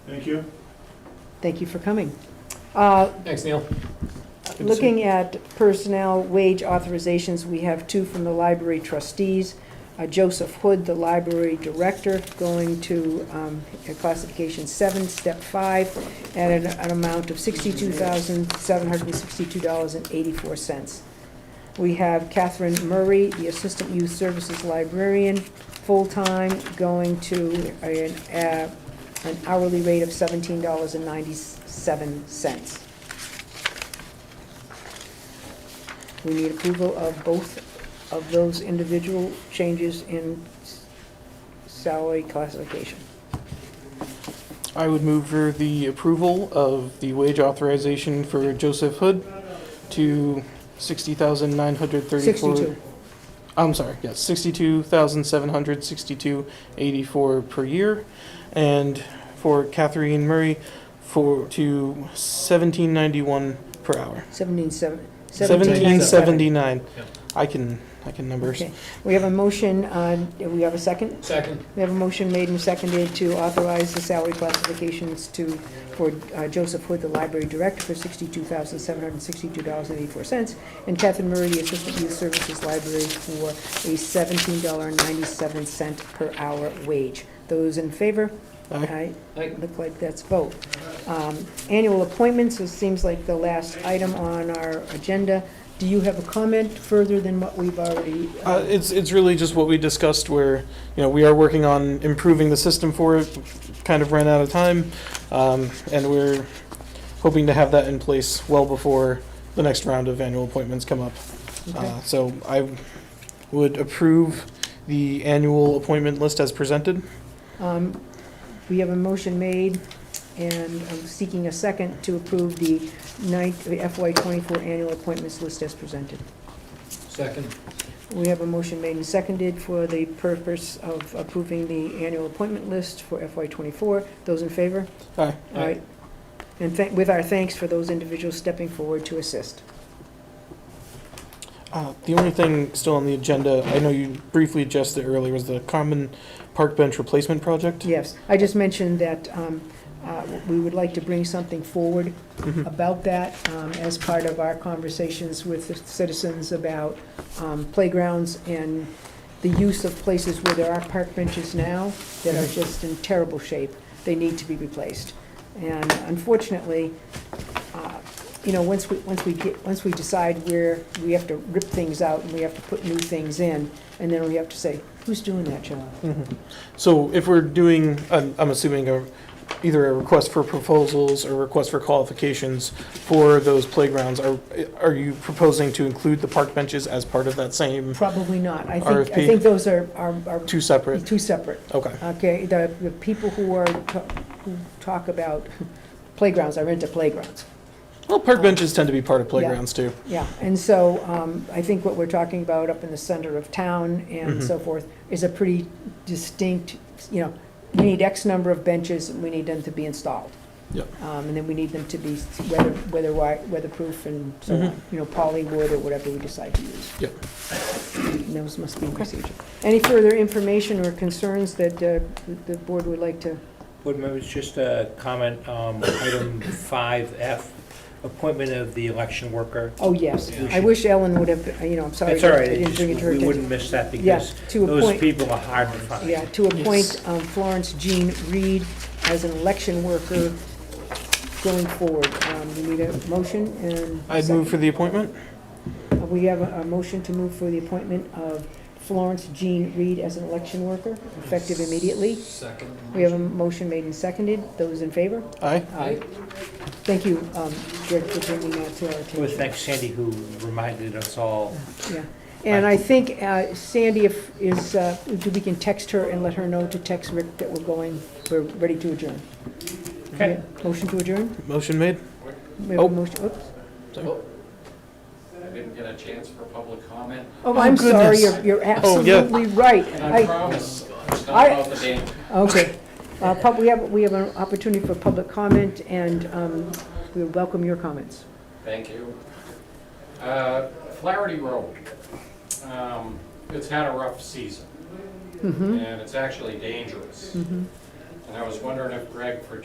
Thank you. Thank you for coming. Uh, Thanks, Neil. see you. Looking at personnel wage authorizations, we have two from the library trustees. Uh, Joseph Hood, the library director, going to um, a classification seven, step five, at an- an amount of $62,762.84. We have Catherine Murray, the assistant youth services librarian, full-time, going to an uh, an hourly rate of $17.97. We need approval of both of those individual changes in s- salary classification. I would move for the approval of the wage authorization for Joseph Hood to sixty thousand nine hundred thirty-four. 62. I'm sorry, yes, sixty-two thousand seven hundred sixty-two eighty-four per year, and for Catherine Murray for to seventeen ninety-one per hour. 17, seven- Seventeen 17, seven. seventy-nine. Yeah. I can I can numbers. Okay. We have a motion, uh, do we have a second? Second. We have a motion made and seconded to authorize the salary classifications to, for uh, Joseph Hood, the library director, for $62,762.84, and Catherine Murray, the assistant youth services library, for a $17.97 per hour wage. Those in favor? Aye. Aye. Aye. Look like that's vote. Um, Annual appointments, this seems like the last item on our agenda. Do you have a comment further than what we've already? uh, Uh, it's it's really just what we discussed where you know we are working on improving the system for it kind of ran out of time um, and we're hoping to have that in place well before the next round of annual appointments come up okay. uh, so I would approve the annual appointment list as presented Um, We have a motion made, and I'm seeking a second to approve the ninth- the FY '24 annual appointments list as presented. Second. We have a motion made and seconded for the purpose of approving the annual appointment list for FY '24. Those in favor? Aye. All right. And thank- with our thanks for those individuals stepping forward to assist. Uh, The only thing still on the agenda, I know you briefly addressed it earlier, was the common park bench replacement project. Yes, I just mentioned that um, uh, we would like to bring something forward Mhm. about that um, as part of our conversations with the citizens about um, playgrounds and the use of places where there are park benches now that are just in terrible shape. They need to be replaced. And unfortunately, uh, you know, once we, once we get, once we decide where we have to rip things out and we have to put new things in, and then we have to say, who's doing that job? Mhm. So if we're doing, I'm I'm assuming a- either a request for proposals or request for qualifications for those playgrounds, are are you proposing to include the park benches as part of that same, Probably not. I think, I RFP. think those are, are, are two separate? two separate. Okay, Okay, the, the people who are, ta- who talk about playgrounds are into playgrounds. well, park benches tend to be part of playgrounds too. Yeah, and so, um, I think what we're talking about up in the center of town and Mhm. so forth is a pretty distinct, you know, we need X number of benches and we need them to be installed. Yep. Um, and then we need them to be weather, weather, wi- weatherproof and so Mhm. on, you know, poly wood or whatever we decide to use. Yep. And Those must be procedure. Any further information or concerns that, uh, the board would like to Board members, just a comment, um, item 5F, appointment of the election worker. Oh, yes. Yeah. I wish Ellen would have, you know, I'm sorry. That's all that right, I didn't it bring it just- to her we attention. wouldn't miss that Yeah, because to those appoint, people are hard to find. yeah, to appoint Yes. um, Florence Jean Reed as an election worker going forward. Um, We need a motion and. I'd move for the appointment. second. Uh, We have a a motion to move for the appointment of Florence Jean Reed as an election worker, effective immediately. Second. We have a motion made and seconded. Those in favor? Aye. Aye. Thank you, um, Greg, for bringing that to our attention. Well, thanks Sandy who reminded us all. Yeah, and I think uh, Sandy if, is, uh, if we can text her and let her know to text Rick that we're going, we're ready to adjourn. Okay. Motion to adjourn? Motion made? We have a Oh. motion- oops. Oh, I didn't get a chance for public comment. Oh, I'm sorry, goodness. you're, you're Oh, yeah. absolutely right. And I I, promise, it's I- not about the dam. okay. Uh, pub, we have, we have an opportunity for public comment and, um, we welcome your comments. Thank you. Uh, Flaherty Road, um, it's had a rough season, Mm-hmm. Hmm? and it's actually dangerous. And I was wondering if Greg, for